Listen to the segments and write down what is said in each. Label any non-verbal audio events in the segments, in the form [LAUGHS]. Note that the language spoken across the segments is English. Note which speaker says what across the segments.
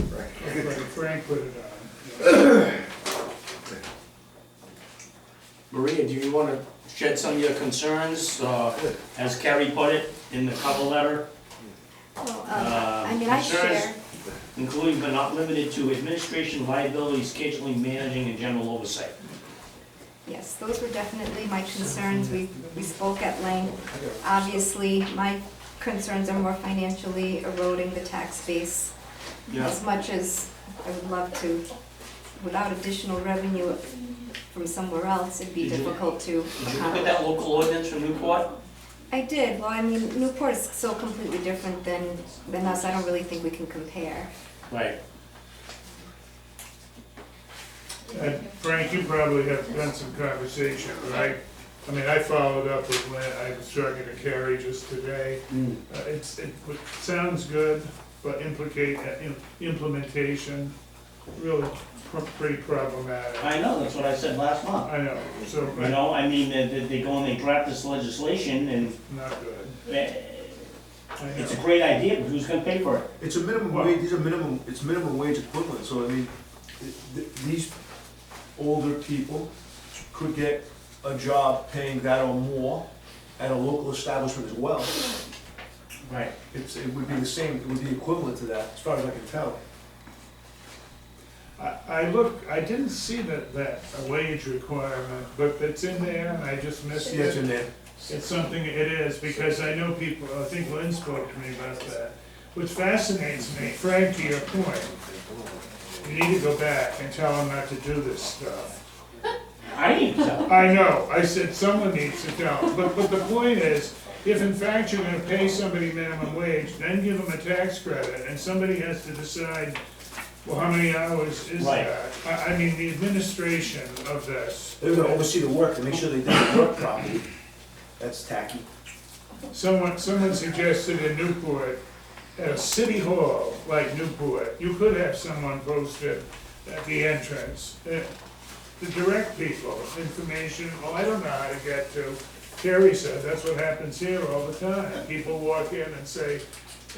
Speaker 1: Frank, Frank put it on.
Speaker 2: Maria, do you want to shed some of your concerns, uh, as Carrie put it in the cover letter?
Speaker 3: Well,
Speaker 2: Uh,
Speaker 3: um, I mean, I
Speaker 2: insurance-
Speaker 3: share,
Speaker 2: including but not limited to administration liability, scheduling, managing, and general oversight.
Speaker 3: yes, those were definitely my concerns, we, we spoke at length. Obviously, my concerns are more financially eroding the tax base. As much as I would love to, without additional revenue from somewhere else, it'd be
Speaker 2: Did you-
Speaker 3: difficult to.
Speaker 2: Did you look at that local ordinance from Newport?
Speaker 3: I did, well, I mean, Newport is so completely different than, than us, I don't really think we can compare.
Speaker 2: Right.
Speaker 1: And Frank, you probably have done some conversation, right? I mean, I followed up with Lynn, I was talking to Carrie just today.
Speaker 2: Mm.
Speaker 1: Uh, It's, it w- sounds good, but implicate, uh, im- implementation, really pr- pretty problematic.
Speaker 2: I know, that's what I said last month.
Speaker 1: I know, so,
Speaker 2: You know, I mean, they, they- they go and they draft this legislation and
Speaker 1: not good.
Speaker 2: eh,
Speaker 1: I
Speaker 2: it's a
Speaker 1: know.
Speaker 2: great idea, but who's gonna pay for it?
Speaker 4: It's a minimum
Speaker 1: Well-
Speaker 4: wage, these are minimum, it's minimum wage equivalent, so I mean, th- th- these older people could get a job paying that or more at a local establishment as well.
Speaker 2: Right.
Speaker 4: It's, it would be the same, it would be equivalent to that, as far as I can tell.
Speaker 1: I, I look, I didn't see that, that a wage requirement, but it's in there, and I just missed
Speaker 4: See, that's
Speaker 1: it.
Speaker 4: in there.
Speaker 1: It's something, it is, because I know people, I think Lynn spoke to me about that, which fascinates me, Frank, to your point. You need to go back and tell them not to do this stuff.
Speaker 2: I need to tell. them.
Speaker 1: I know, I said someone needs to tell, them. but, but the point is, if in fact you're gonna pay somebody minimum wage, then give them a tax credit, and somebody has to decide, well, how many hours is
Speaker 2: Right.
Speaker 1: that? I, I mean, the administration of this,
Speaker 4: They're gonna oversee the work to make sure they did the work properly. That's tacky.
Speaker 1: Someone, someone suggested in Newport, at a city hall like Newport, you could have someone posted at the entrance, eh, to direct people, information, oh, I don't know how to get to. Terry said, that's what happens here all the time, people walk in and say,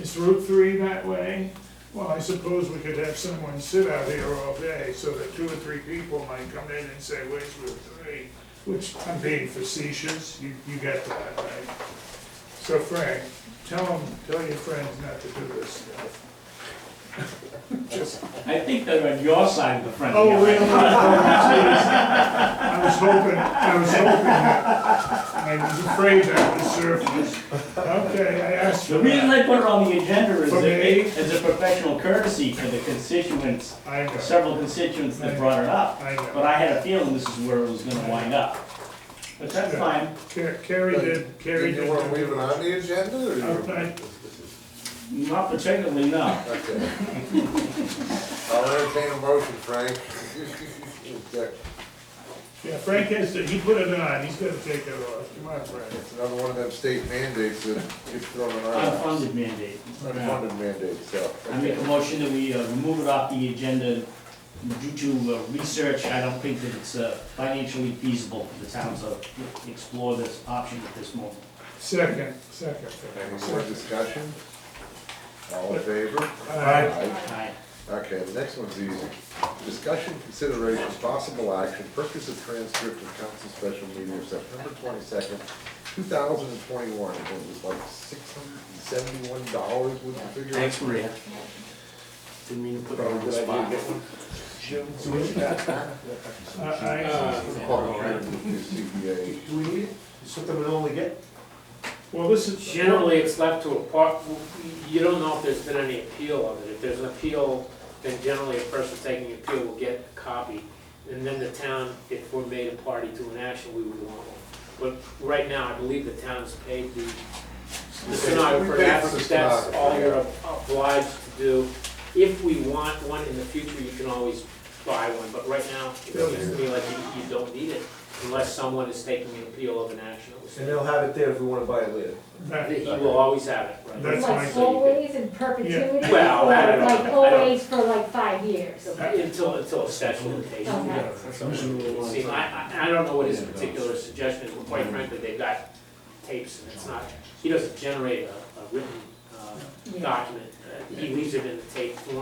Speaker 1: is Route three that way? Well, I suppose we could have someone sit out here all day, so that two or three people might come in and say, where's Route three? Which, I'm being facetious, you, you get that, right? So Frank, tell them, tell your friends not to do this stuff. [LAUGHS] Just,
Speaker 2: I think they're on your side of the fence.
Speaker 1: oh, really? I was hoping, I was hoping that, I was afraid that would surface. Okay, I asked
Speaker 2: The
Speaker 1: for
Speaker 2: reason
Speaker 1: that.
Speaker 2: I put it on the agenda is
Speaker 1: For me?
Speaker 2: that, as a professional courtesy for the constituents,
Speaker 1: I know,
Speaker 2: several constituents that brought it up.
Speaker 1: I know.
Speaker 2: But I had a feeling this is where it was gonna wind up. But that's fine.
Speaker 1: Ca- Carrie did, Carrie did.
Speaker 5: Did
Speaker 1: Uh,
Speaker 5: you want to leave it on the agenda, or? you-
Speaker 1: Okay.
Speaker 2: Not particularly, no.
Speaker 5: Okay. I'll entertain a motion, Frank. Okay,
Speaker 1: Yeah, Frank has to, he put it on, he's gonna take it off, come on, Frank.
Speaker 5: It's another one of them state mandates that gets thrown around.
Speaker 2: Unfunded mandate.
Speaker 5: Unfunded mandates, so.
Speaker 2: I make a motion that we uh, remove it off the agenda due to uh, research. I don't think that it's uh, financially feasible for the town to explore this option at this moment.
Speaker 1: Second, second.
Speaker 5: Any more discussion? All in favor?
Speaker 1: Aye.
Speaker 2: Aye.
Speaker 5: Okay, the next one's easy. Discussion, consideration, possible action, purchase of transcript of council special meeting of September twenty-second, two thousand and twenty-one. It was like six hundred and seventy-one dollars with the figure.
Speaker 2: Thanks, Maria. Didn't mean to put her on the spot.
Speaker 4: So what you got?
Speaker 1: Aye.
Speaker 5: CPA.
Speaker 4: Do we need it? Is something we normally get?
Speaker 1: Well, this is.
Speaker 6: Generally, it's left to a part, you don't know if there's been any appeal of it. If there's an appeal, then generally a person taking the appeal will get a copy. And then the town, if we're made a party to an action, we would want one. But right now, I believe the town's paid the the
Speaker 5: We
Speaker 6: stenographer.
Speaker 5: paid for
Speaker 6: That's,
Speaker 5: the
Speaker 6: that's all
Speaker 5: stenographer,
Speaker 6: you're obliged to do. If we want one in the future, you can always buy one, but right now, it seems to me like you, you don't need it unless someone is taking the appeal of an action. that was
Speaker 4: And
Speaker 6: taken.
Speaker 4: they'll have it there if we wanna buy it later.
Speaker 1: That-
Speaker 6: He will always have it, right?
Speaker 1: That's my
Speaker 7: Like
Speaker 1: thing.
Speaker 7: always in perpetuity?
Speaker 6: Well,
Speaker 7: or
Speaker 6: I don't know. I
Speaker 7: Like
Speaker 6: don't-
Speaker 7: always for like five years?
Speaker 6: Until, until a statute of limitations.
Speaker 7: Okay.
Speaker 6: See, I, I, I don't know what his particular suggestion is, but quite frankly, they've got tapes and it's not, he doesn't generate a, a written, uh,
Speaker 7: Yeah.
Speaker 6: document. Uh, He leaves it in the tape form